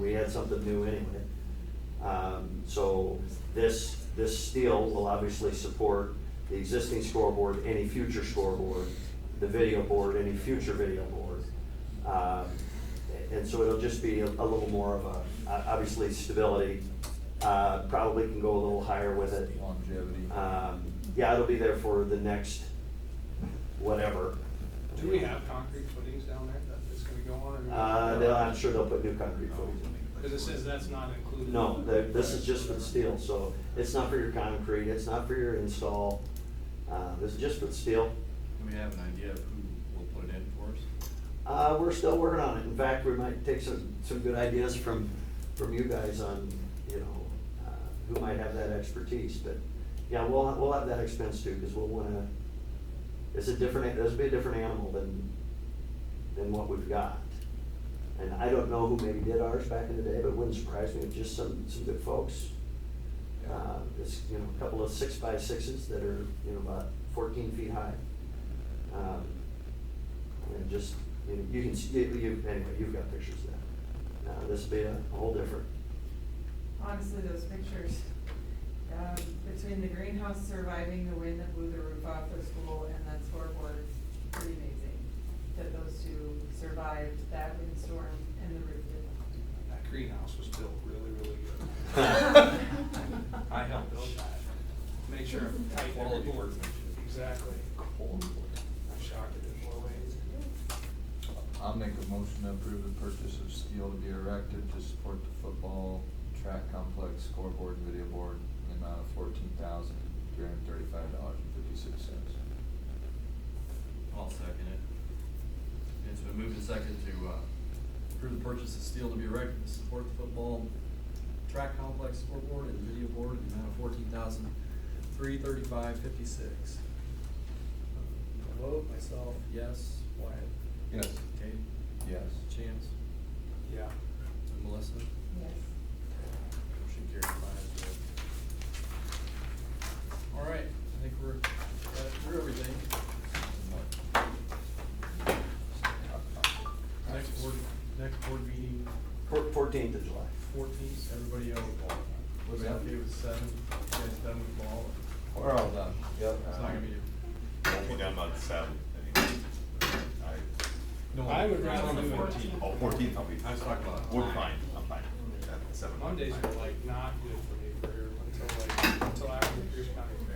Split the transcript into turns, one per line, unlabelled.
we had something new anyway. Um, so this, this steel will obviously support the existing scoreboard, any future scoreboard, the video board, any future video board. Um, and so it'll just be a, a little more of a, uh, obviously stability, uh, probably can go a little higher with it.
Longevity.
Um, yeah, it'll be there for the next whatever.
Do we have concrete footings down there that is gonna go on? or-
Uh, they'll, I'm sure they'll put new concrete footings in.
Cause it says that's not included.
No, the- this is just for the steel, so it's not for your concrete, it's not for your install, uh, this is just for the steel.
Do we have an idea of who will put it in for us?
Uh, we're still working on it, in fact, we might take some, some good ideas from, from you guys on, you know, uh, who might have that expertise, but, yeah, we'll, we'll have that expense too, because we'll wanna, it's a different, this will be a different animal than, than what we've got. And I don't know who maybe did ours back in the day, but it wouldn't surprise me, if just some, some good folks. Uh, It's, you know, a couple of six by sixes that are, you know, about fourteen feet high. Um, And just, you know, you can, see- you, you- anyway, you've got pictures of that. Now, this will be a whole different,
Honestly, those pictures, um, between the greenhouse surviving the wind that blew the roof off the school and that scoreboard, it's pretty amazing that those two survived that windstorm and the roof didn't.
That greenhouse was built really, really good. I
I
helped build that. Make sure I'm tight
Quality
everywhere.
workmanship.
Exactly. I'm shocked it didn't blow away.
I'll make a motion to approve the purchase of steel to be erected to support the football track complex scoreboard and video board in the amount of fourteen thousand three hundred and thirty-five dollars and fifty-six cents.
I'll second it. It's been moved and seconded to, uh, approve the purchase of steel to be erected to support the football track complex scoreboard and video board in the amount of fourteen thousand, three thirty-five fifty-six.
Vote myself.
Yes, Wyatt,
Yes.
Kate,
Yes.
Chance,
Yeah.
and Melissa.
Yes.
Motion carried five zero. All right, I think we're, uh, through everything. Next board, next board meeting,
fourteenth of July.
fourteenth, everybody out of ball. Was that okay with seven, you guys done with ball?
We're all done. Yep.
It's not gonna be.
Won't be done by the seventh, anyway.
no,
I would
it's
rather
on the
do it-
14th.
Oh, fourteenth, I'll be.
I was talking about
We're
time.
fine, I'm fine. At seven.
Mondays are like not good for me for, until like, until after the Pierce County Fair.